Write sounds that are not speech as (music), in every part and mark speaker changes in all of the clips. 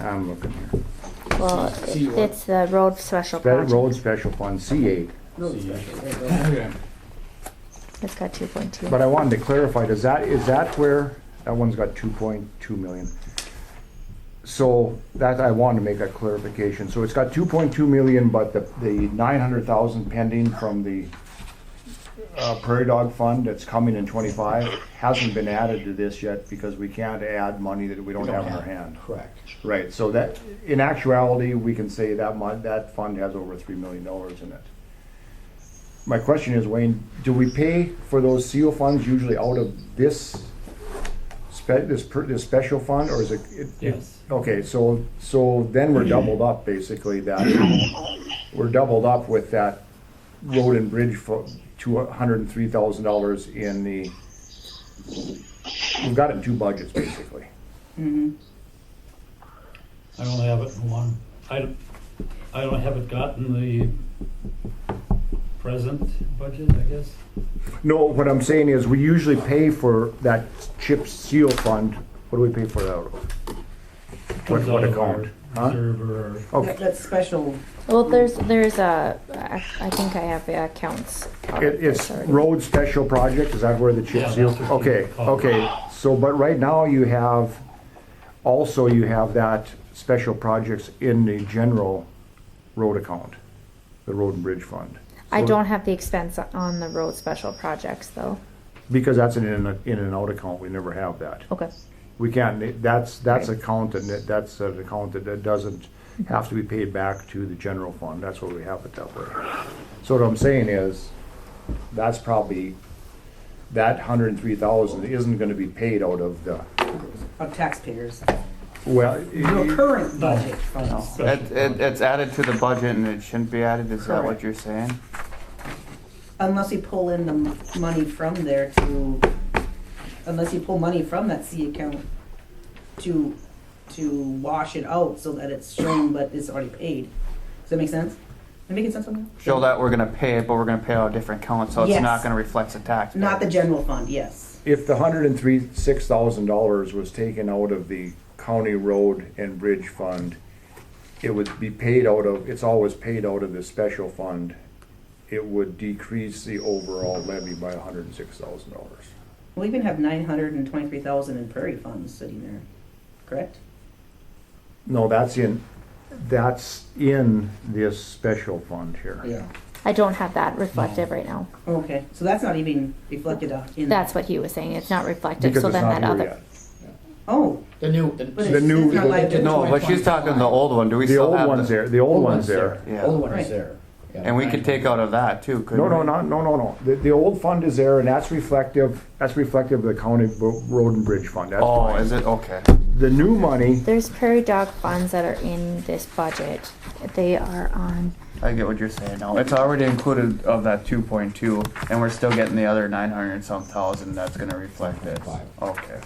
Speaker 1: I'm looking here.
Speaker 2: Well,
Speaker 3: See what?
Speaker 2: it's the road special
Speaker 1: Federal
Speaker 2: project.
Speaker 1: Road Special Fund, C eight.
Speaker 3: See.
Speaker 4: Okay.
Speaker 2: It's got two point two.
Speaker 1: But I wanted to clarify, does that, is that where, that one's got two point two million. So that, I wanted to make that clarification. So it's got two point two million, but the, the nine hundred thousand pending from the uh, Prairie Dog Fund that's coming in twenty-five hasn't been added to this yet because we can't add money that we don't have in our hand.
Speaker 3: Correct.
Speaker 1: Right, so that, in actuality, we can say that mon, that fund has over three million dollars in it. My question is, Wayne, do we pay for those seal funds usually out of this spe, this, per- this special fund, or is it? it-
Speaker 4: Yes.
Speaker 1: Okay, so, so then we're doubled up, basically, that, (coughs) we're doubled up with that road and bridge for two hundred and three thousand dollars in the, we've got it in two budgets, basically.
Speaker 4: I don't have it in one. I, don't- I don't, haven't gotten the present budget, I guess.
Speaker 1: No, what I'm saying is, we usually pay for that chip seal fund, what do we pay for that out of? What-
Speaker 4: Comes
Speaker 1: what
Speaker 4: out of our
Speaker 1: account? Huh?
Speaker 4: Reserve or,
Speaker 1: Okay,
Speaker 5: That- That's special.
Speaker 2: Well, there's, there's a, I I think I have the accounts. out of
Speaker 1: it, it's
Speaker 2: this already.
Speaker 1: road special project, is that where the chip
Speaker 4: Yeah,
Speaker 1: seal?
Speaker 4: that's what
Speaker 1: Okay,
Speaker 4: it's called.
Speaker 1: okay, so, but right now you have, also you have that special projects in the general road account, the road and bridge fund.
Speaker 2: I
Speaker 1: So-
Speaker 2: don't have the expense on the road special projects though.
Speaker 1: Because that's an in, in and out account, we never have that.
Speaker 2: Okay.
Speaker 1: We can't, that's, that's a count, and that- that's an account that- that doesn't have to be paid back to the general fund, that's what we have it that way. So what I'm saying is, that's probably, that hundred and three thousand isn't gonna be paid out of the,
Speaker 5: Of taxpayers.
Speaker 1: well,
Speaker 5: Your
Speaker 1: i-
Speaker 5: current budget funds.
Speaker 6: It, it, it's added to the budget and it shouldn't be added, is that what you're saying?
Speaker 5: Unless you pull in the m- money from there to, unless you pull money from that C account to, to wash it out so that it's shown but it's already paid. Does that make sense? Am I making sense on that?
Speaker 6: Show that we're gonna pay it, but we're gonna pay out a different account, so it's
Speaker 5: Yes.
Speaker 6: not gonna reflect the tax.
Speaker 5: Not the general fund, yes.
Speaker 1: if the hundred and three, six thousand dollars was taken out of the county road and bridge fund, it would be paid out of, it's always paid out of the special fund, it would decrease the overall levy by hundred and six thousand dollars.
Speaker 5: We even have nine hundred and twenty-three thousand in prairie funds sitting there, correct?
Speaker 1: No, that's in, that's in this special fund here.
Speaker 3: Yeah.
Speaker 2: I don't have that reflective right now.
Speaker 5: Okay, so that's not even reflected out in.
Speaker 2: That's what he was saying. It's not reflective.
Speaker 1: Because
Speaker 2: So
Speaker 1: it's
Speaker 2: then that
Speaker 1: not here
Speaker 2: other,
Speaker 1: yet.
Speaker 5: Oh,
Speaker 3: The new.
Speaker 5: but
Speaker 1: The
Speaker 5: it's,
Speaker 1: new-
Speaker 5: it's not like.
Speaker 6: No, but she's talking the old one, do we
Speaker 1: The
Speaker 6: still
Speaker 1: old
Speaker 6: have
Speaker 1: one's
Speaker 6: the?
Speaker 1: there, the old one's there.
Speaker 6: Yeah.
Speaker 3: Old one
Speaker 5: Right.
Speaker 3: is there. Yeah,
Speaker 6: And we could take out of that too, couldn't
Speaker 1: No,
Speaker 6: we?
Speaker 1: no, not, no, no, no. The, the old fund is there and that's reflective, that's reflective of the county ro- road and bridge fund. That's
Speaker 6: Oh,
Speaker 1: fine.
Speaker 6: is it, okay.
Speaker 1: The new money,
Speaker 2: there's prairie dog funds that are in this budget. They are on,
Speaker 6: I get what you're saying now, it's already included of that two point two, and we're still getting the other nine hundred and some thousand, that's gonna reflect this.
Speaker 3: Five.
Speaker 6: Okay.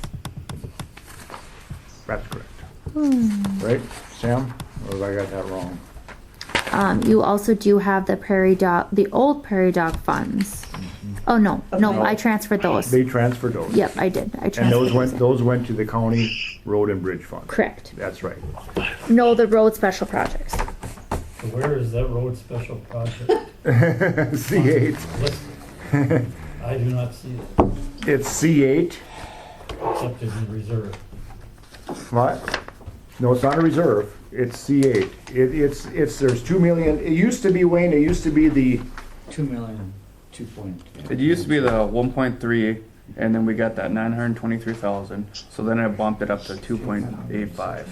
Speaker 1: that's correct. Right, Sam? Or have I got that wrong?
Speaker 7: Um, you also do have the prairie dog, the old prairie dog funds. Oh no, no, I transferred those.
Speaker 1: Mm-hmm. They transferred those.
Speaker 7: yep, I did. I transferred
Speaker 1: And those
Speaker 7: those
Speaker 1: went,
Speaker 7: in.
Speaker 1: those went to the county road and bridge fund.
Speaker 7: Correct.
Speaker 1: That's right. (laughs)
Speaker 7: No, the road special projects.
Speaker 4: so where is that road special project?
Speaker 1: C eight,
Speaker 4: listed?
Speaker 1: (laughs)
Speaker 4: I do not see it,
Speaker 1: it's C eight.
Speaker 4: except in the reserve.
Speaker 1: What? No, it's not a reserve, it's C eight. It, it's, it's, there's two million, it used to be, Wayne, it used to be the,
Speaker 3: Two million, two point.
Speaker 6: It used to be the one point three, and then we got that nine hundred twenty-three thousand, so then I bumped it up to two point eight five.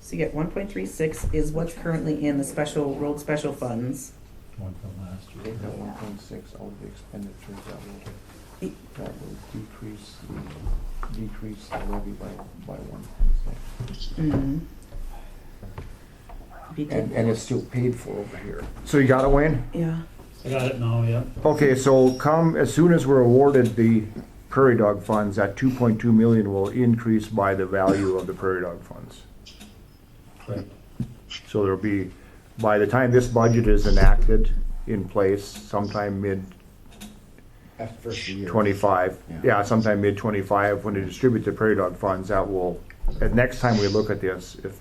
Speaker 5: So you get one point three six is what's currently in the special, road special funds.
Speaker 4: One from last year.
Speaker 8: one point six, all the expenditures that will, that will decrease, the- decrease the levy by, by one point six.
Speaker 5: Be good.
Speaker 1: and, and it's still paid for over here. So you got it, Wayne?
Speaker 5: Yeah,
Speaker 4: I got it now, yeah.
Speaker 1: Okay, so come, as soon as we're awarded the prairie dog funds, that two point two million will increase by the value of the prairie dog funds.
Speaker 4: Right.
Speaker 1: So there'll be, by the time this budget is enacted in place, sometime mid
Speaker 3: After first year.
Speaker 1: twenty-five,
Speaker 3: Yeah.
Speaker 1: yeah, sometime mid twenty-five, when they distribute the prairie dog funds, that will, and next time we look at this, if